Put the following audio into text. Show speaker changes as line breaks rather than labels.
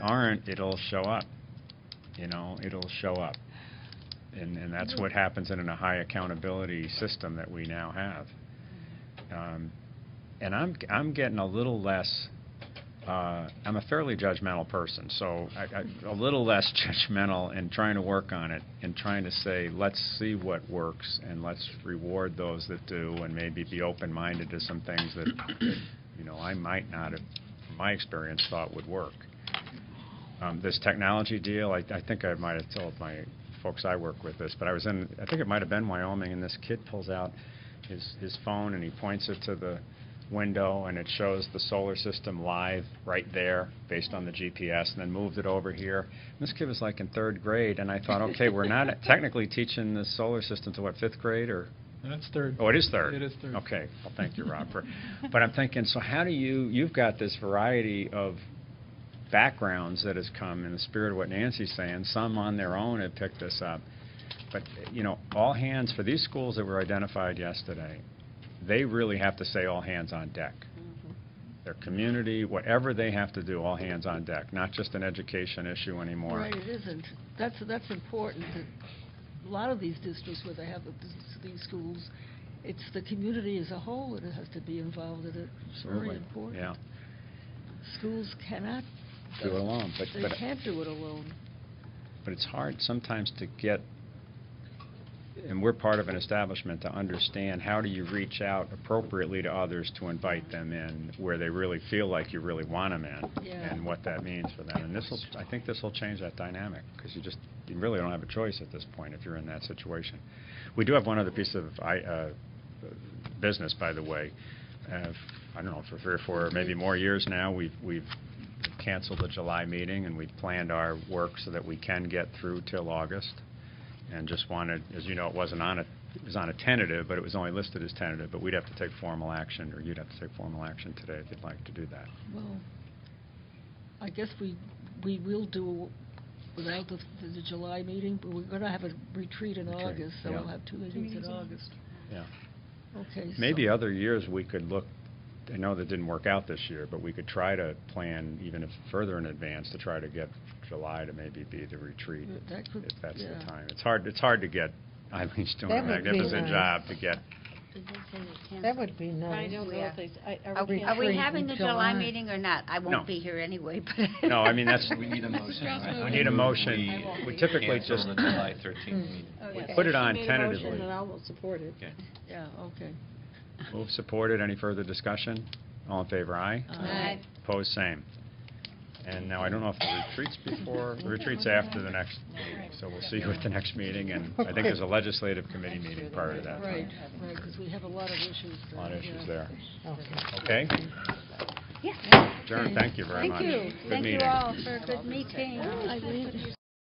aren't, it'll show up. You know, it'll show up. And, and that's what happens in a high accountability system that we now have. Um, And I'm, I'm getting a little less, uh, I'm a fairly judgmental person, so I, I- a little less judgmental and trying to work on it and trying to say, let's see what works and let's reward those that do and maybe be open-minded to some things that, that, you know, I might not have, from my experience, thought would work. Um, This technology deal, I, I think I might have told my folks I work with this, but I was in, I think it might have been Wyoming, and this kid pulls out his, his phone and he points it to the window and it shows the solar system live right there based on the GPS and then moved it over here. And This kid was like in third grade and I thought, okay, we're not technically teaching the solar system to what, fifth grade or
That's third.
Oh, it is third?
It is third.
Okay, well, thank you, Rob, for, but I'm thinking, so how do you, you've got this variety of backgrounds that has come in the spirit of what Nancy's saying, some on their own have picked this up, but, you know, all hands, for these schools that were identified yesterday, they really have to say all hands on deck.
Mm-hmm.
Their community, whatever they have to do, all hands on deck, not just an education issue anymore.
Right, it isn't. That's, that's important. that A lot of these districts where they have the- these schools, it's the community as a whole that has to be involved in it. It's
Absolutely,
very important.
Yeah,
Schools cannot,
do it alone, but,
they
but
can't do it alone.
But it's hard sometimes to get, and we're part of an establishment, to understand how do you reach out appropriately to others to invite them in where they really feel like you really want them in?
Yeah.
And what that means for them. And this will, I think this will change that dynamic, because you just, you really don't have a choice at this point if you're in that situation. We do have one other piece of I- uh, business, by the way. Uh, I don't know, for three or four, or maybe more years now, we've we've canceled the July meeting, and we've planned our work so that we can get through till August. And just wanted, as you know, it wasn't on a, it was on a tentative, but it was only listed as tentative, but we'd have to take formal action, or you'd have to take formal action today if you'd like to do that.
Well, I guess we, we will do without the, the July meeting, but we're gonna have a retreat in
Retreat,
August, so
yeah.
we'll have two meetings in August.
Yeah.
Okay, so.
Maybe other years, we could look, I know that didn't work out this year, but we could try to plan even if further in advance to try to get July to maybe be the retreat,
Yeah, that could-
if that's
yeah.
the time. It's hard, it's hard to get, Eileen's doing a
That would be
magnificent
nice.
job to get,
That would be
I
nice,
don't know
yeah.
if they, I,
Are
are
we
we
Retreat
Are we
in
canceling?
having the July
July.
meeting or not? I
No.
won't be here anyway, but.
no, I mean, that's,
We need a motion. right?
we need a motion.
won't
We
be
typically
Cancel
just,
the July 13th meeting.
Okay.
put it on
Oh, She made a motion,
tentatively.
and I will support it.
Okay.
Yeah, okay.
move supported, any further discussion? All in favor, aye?
Aye.
Opposed, same. And now, I don't know if the retreat's before, retreat's after the next meeting, so we'll see you at the next meeting, and I think there's a legislative committee meeting prior to that. time.
Right, right, because we have a lot of issues.
A lot of
there,
issues
yeah.
there.
Okay.
Okay?
Yes.
Jern, thank you very much.
you.
Good
Thank you
meeting.
all for a good meeting.
Eileen,